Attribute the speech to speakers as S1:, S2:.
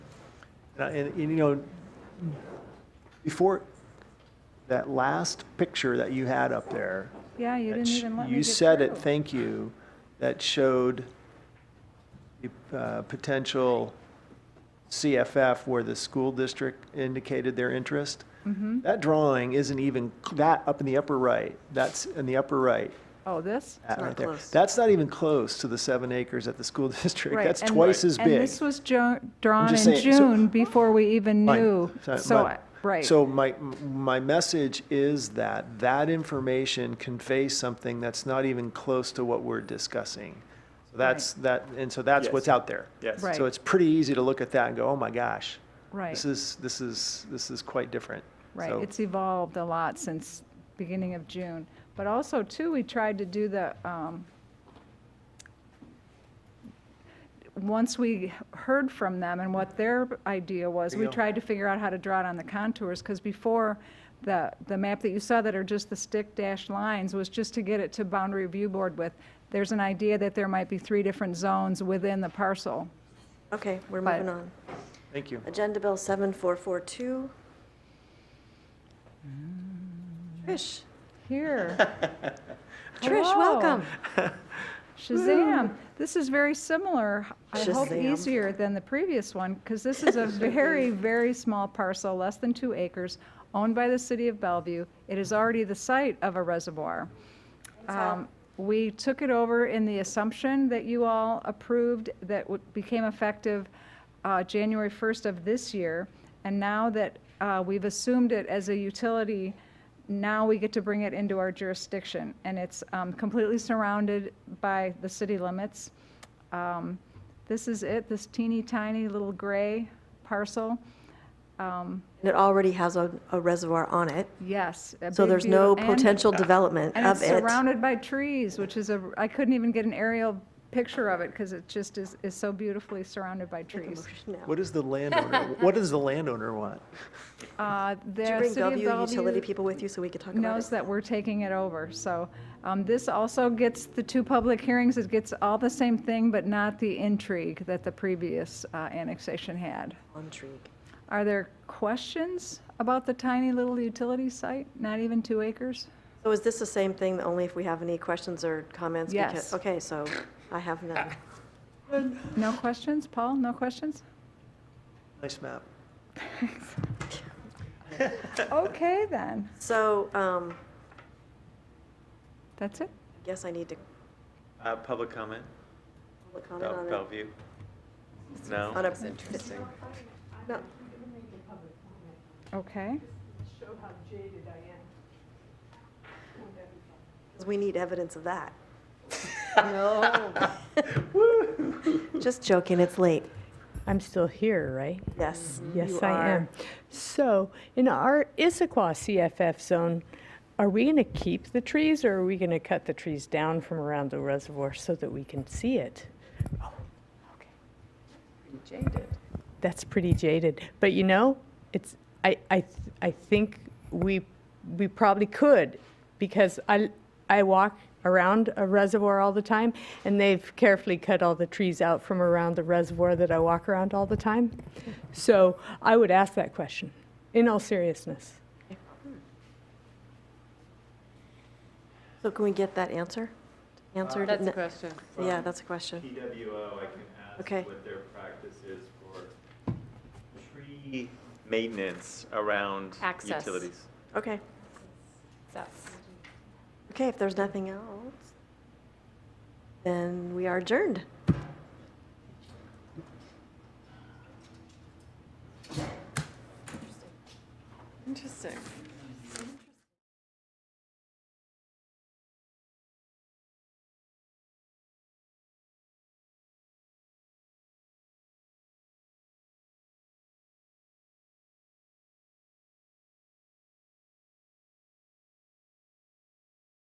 S1: Uh, And, and, you know, before, that last picture that you had up there.
S2: Yeah, you
S1: that
S2: didn't
S1: sh-
S2: even let me
S1: You
S2: get
S1: said it,
S2: through.
S1: thank you, that showed the uh, potential CFF where the school district indicated their interest.
S2: Mm-hmm.
S1: That drawing isn't even, that up in the upper right, that's in the upper right.
S2: Oh, this?
S1: that
S3: not
S1: right there.
S3: close.
S1: That's not even close to the seven acres at the school district.
S2: Right,
S1: That's
S2: and-
S1: twice as
S2: And
S1: big.
S2: this was jo- drawn
S1: just
S2: in
S1: saying, so-
S2: June before we even
S1: Fine.
S2: knew.
S1: So-
S2: So,
S1: but-
S2: I- right.
S1: So my, my message is that that information conveys something that's not even close to what we're discussing. So That's, that, and so that's
S4: Yes.
S1: what's out there.
S4: Yes.
S2: Right.
S1: So it's pretty easy to look at that and go, oh my gosh.
S2: Right,
S1: This is, this is, this is quite different.
S2: right.
S1: So-
S2: It's e evolved a lot since beginning of June. But also too, we tried to do the, um, once we heard from them and what their idea was, we
S1: Yeah.
S2: tried to figure out how to draw it on the contours, because before, the, the map that you saw that are just the stick dash lines was just to get it to boundary review board with, there's an idea that there might be three different zones within the parcel.
S3: Okay, we're
S2: But-
S3: moving on.
S1: Thank you.
S3: Agenda Bill 7442. Trish,
S2: Here.
S3: Trish,
S2: Hello.
S3: welcome.
S2: Shazam. This is very similar, I hope
S3: Shazam.
S2: easier than the previous one, because this is a very, very small parcel, less than two acres, owned by the city of Bellevue. It is already the site of a reservoir. Um, We took it over in the assumption that you all approved, that w- became effective uh, January 1st of this year. And now that uh, we've assumed it as a utility, now we get to bring it into our jurisdiction. And it's um, completely surrounded by the city limits. Um, This is it, this teeny tiny little gray parcel. Um,
S3: And it already has a a reservoir on it,
S2: Yes. a
S3: so
S2: big,
S3: there's no
S2: beautiful- and-
S3: potential development
S2: and
S3: of
S2: it's
S3: it.
S2: surrounded by trees, which is a, I couldn't even get an aerial picture of it because it just is, is so beautifully surrounded by trees.
S1: What does the landowner, what does the landowner want?
S2: Uh,
S3: Did you
S2: The
S3: bring
S2: city
S3: Bellevue
S2: of
S3: utility
S2: Bellevue
S3: people with you so we could talk about
S2: knows
S3: it?
S2: that we're taking it over. So um, this also gets the two public hearings. It gets all the same thing, but not the intrigue that the previous uh, annexation had.
S3: Intrigue.
S2: Are there questions about the tiny little utility site? Not even two acres?
S3: So is this the same thing, only if we have any questions or comments?
S2: Yes.
S3: Because- Okay, so I have none.
S2: No questions? Paul, no questions?
S1: Nice map.
S2: Okay, then.
S3: So, um,
S2: That's it?
S3: guess I need to
S4: Uh, public comment?
S3: public comment
S4: Bel-
S3: on it.
S4: Bellevue? No?
S3: On a-
S4: Interesting.
S3: No.
S2: Okay.
S3: Because we need evidence of that. no. Just joking, it's late.
S5: I'm still here, right?
S3: Yes.
S5: Yes,
S3: you
S5: I
S3: are.
S5: am. So, in our Issaquah CFF zone, are we going to keep the trees or are we going to cut the trees down from around the reservoir so that we can see it? That's pretty jaded. But you know, it's, I, I, th- I think we, we probably could because I, I walk around a reservoir all the time and they've carefully cut all the trees out from around the reservoir that I walk around all the time. So I would ask that question in all seriousness.
S3: So can we get that answer? Answered?
S6: That's a
S3: No-
S6: question.
S3: Yeah, that's a question.
S4: PWO, I can
S3: Okay.
S4: ask what their practice is for tree maintenance around
S6: Access.
S4: utilities.
S3: Okay. Okay, if there's nothing else, then we are adjourned.
S6: Interesting.